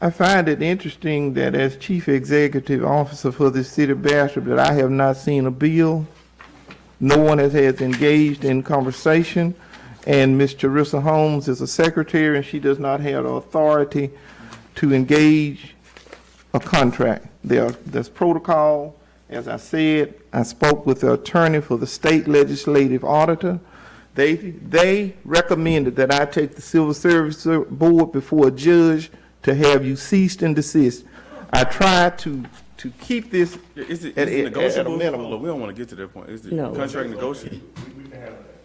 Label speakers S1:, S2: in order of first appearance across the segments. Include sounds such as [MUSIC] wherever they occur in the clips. S1: I find it interesting that as chief executive officer for the city of Bastrop, that I have not seen a bill. No one has, has engaged in conversation, and Ms. Charissa Holmes is a secretary, and she does not have the authority to engage a contract. There, there's protocol. As I said, I spoke with the attorney for the state legislative auditor. They, they recommended that I take the civil service board before a judge to have you ceased and desist. I tried to, to keep this
S2: Is it,
S1: At- at- at
S2: is it
S1: a
S2: negotiable?
S1: minimum.
S2: Look, we don't want to get to that point. Is the
S3: No.
S2: contract negotiable?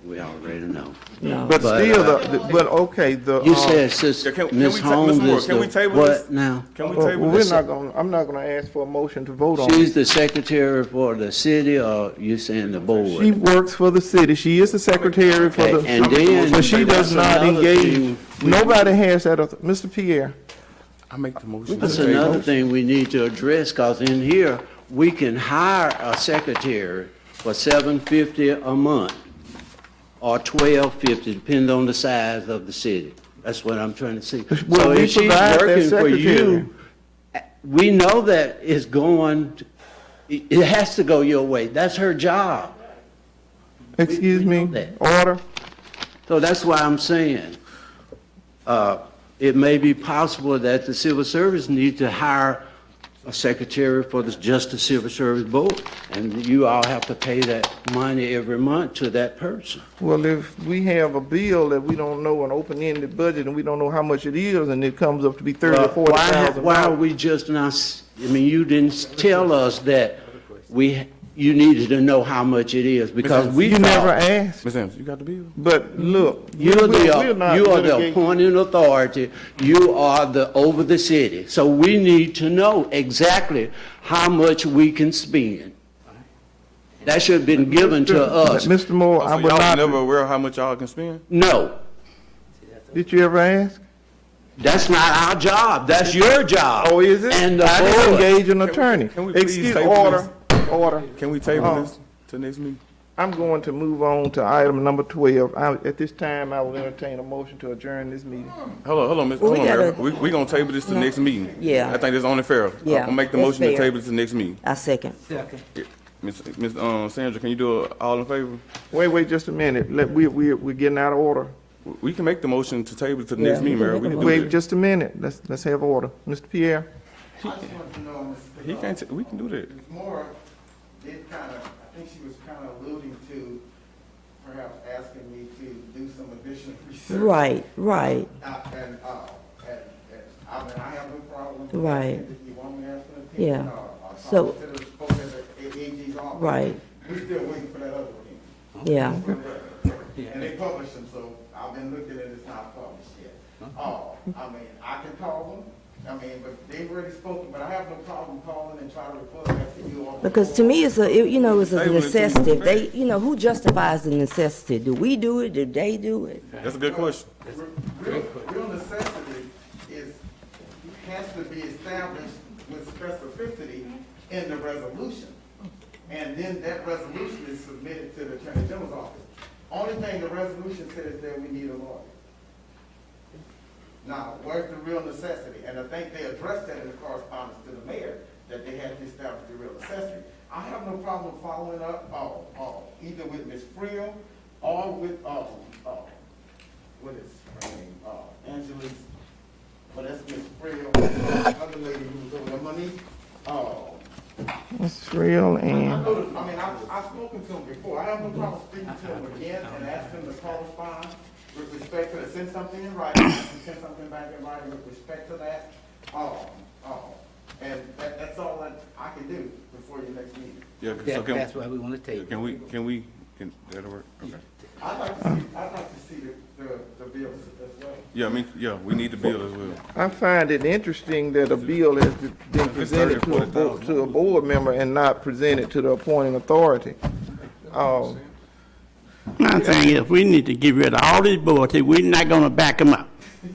S4: We already know.
S3: No.
S1: But
S4: But,
S1: still, the, the- but okay, the.
S4: You
S1: uh,
S4: said, sis,
S2: Yeah, can- can
S4: Ms.
S2: we ta- Ms.
S4: Holmes
S2: Moore,
S4: is
S2: can we
S4: the,
S2: table this?
S4: what now?
S2: Can we
S1: uh,
S2: table
S1: We're
S2: this?
S1: not gonna, I'm not gonna ask for a motion to vote on
S4: She's
S1: it.
S4: the secretary for the city, or you saying the
S1: She
S4: board?
S1: works for the city, she is the secretary for
S4: Okay,
S1: the.
S4: and then
S1: But she
S4: that's
S1: does not
S4: another
S1: engage,
S4: thing.
S1: nobody has that, auth- Mr. Pierre,
S2: I make the motion.
S4: That's another thing we need to address, because in here, we can hire a secretary for seven fifty a month, or twelve fifty, depending on the size of the city. That's what I'm trying to see.
S1: Well,
S4: So
S1: we
S4: if she's
S1: provide that
S4: working for
S1: secretary.
S4: you, we know that it's going, to- it it has to go your way. That's her job.
S1: excuse
S4: we know
S1: me,
S4: that.
S1: order.
S4: So that's why I'm saying, uh, it may be possible that the civil service need to hire a secretary for the Justice Civil Service Board, and you all have to pay that money every month to that person.
S1: Well, if we have a bill that we don't know, an open-ended budget, and we don't know how much it is, and it comes up to be thirty or
S4: Well,
S1: forty
S4: Uh, Why, have-
S1: thousand.
S4: why are we just not, s- I mean, you didn't s- tell us that we, you needed to know how much it is, because we
S1: You never
S4: thought,
S1: asked,
S2: Ms. Ames, you got the bill?
S1: but look.
S4: you're the, uh,
S1: we're- we're not
S4: you are the
S1: litigating.
S4: appointing authority, you are the, over the city. So we need to know exactly how much we can spend. That should have been given to us.
S1: Mr. Moore, I
S2: Oh, So
S1: will
S2: y'all never
S1: not,
S2: aware of how much y'all can spend?
S4: No,
S1: did you ever ask?
S4: that's not our job, that's your job.
S1: Oh, is it?
S4: And the
S1: I didn't
S4: board.
S1: engage an attorney.
S2: can we please
S1: Excuse,
S2: table
S1: order, order.
S2: Can we table
S1: Uh-uh.
S2: this to next meeting?
S1: I'm going to move on to item number twelve. I, at this time, I will entertain a motion to adjourn this meeting.
S2: Hold on, hold on, Ms.
S3: Well,
S2: Hold
S3: we
S2: on, Mayor.
S3: gotta-
S2: We, we gonna table this to next meeting.
S3: Yeah.
S2: I think that's only fair. I'll-
S3: Yeah,
S2: I'll make the
S3: that's
S2: motion to
S3: fair.
S2: table this to next meeting.
S3: I second.
S2: Ms. Ms. Um, Sandra, can you do a all in favor?
S1: Wait, wait, just a minute. Let, we, we, we're getting out of order.
S2: We- We can make the motion to table to the next
S3: Yeah,
S2: meeting,
S3: we
S2: Mayor.
S3: can
S2: We
S3: make
S2: can
S3: a
S2: do
S1: Wait,
S2: that.
S1: just a minute. Let's, let's have order. Mr. Pierre?
S5: I just wanted to know, uh, Ms.
S2: He can't, ta- we can do that.
S5: Moore did kind of, I think she was kind of alluding to perhaps asking me to do some additional [LAUGHS] research.
S3: Right, right.
S5: Uh, And, uh, and, and, I mean, I have no problem. with
S3: Right.
S5: asking If you want me to ask for an opinion.
S3: Yeah.
S5: or- or
S3: So-
S5: talk to the folks at the AG's office.
S3: Right.
S5: We're still waiting for that other one.
S3: Yeah.
S5: And they published them, so I've been looking at it, it's not published yet. Oh, I mean, I can call them, I mean, but they've already spoken, but I have no problem calling and trying to report back to you all.
S3: Because to me, it's a, it- you know, it's a
S2: They will do
S3: necessity.
S2: it.
S3: They, you know, who justifies the necessity? Do we do it? Do they do it?
S2: That's a good question.
S5: Re- Real, real necessity is, has to be established with specificity in the resolution. And then that resolution is submitted to the Attorney General's office. Only thing the resolution says is that we need a lawyer. Now, where's the real necessity? And I think they addressed that in the correspondence to the mayor, that they had to establish the real necessity. I have no problem following up, uh, uh, either with Ms. Friel or with, uh, uh, what is her name, uh, Angela's, well, that's Miss Frail, the other lady who was over there, Monique. Oh,
S1: Mrs. Real
S5: I
S1: and,
S5: know, that- Oh, I mean, I've, I've spoken to him before, I have no problem speaking to him again and asking him to correspond with respect to, the- send something in writing, send something back in writing with respect to that. Oh, oh, and that, that's all that I can do before your next meeting.
S2: Yeah, so
S6: That,
S2: can-
S6: that's why we want to table.
S2: Can we, can we, can, that'll work? Okay.
S5: I'd like to see, I'd like to see the, the, the bills as well.
S2: Yeah, I mean, yeah, we need the bill as well.
S1: I find it interesting that a bill has been presented to a, bo- to a board member and not presented to the appointing authority. Um,
S7: My thing is, we need to get rid of all these boards, if we're not gonna back them up.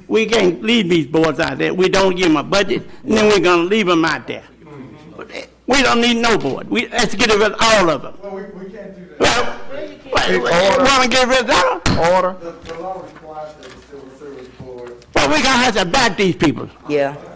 S7: We can't leave these boards out there, we don't give them a budget, and then we're gonna leave them out there. We don't need no board, we, let's get rid of all of them.
S5: Well, we, we can't do that.
S7: Well, we wanna get rid of them?
S1: Order,
S5: The, the law requires that the civil service board
S7: Well, we gonna have to back these people.
S3: Yeah.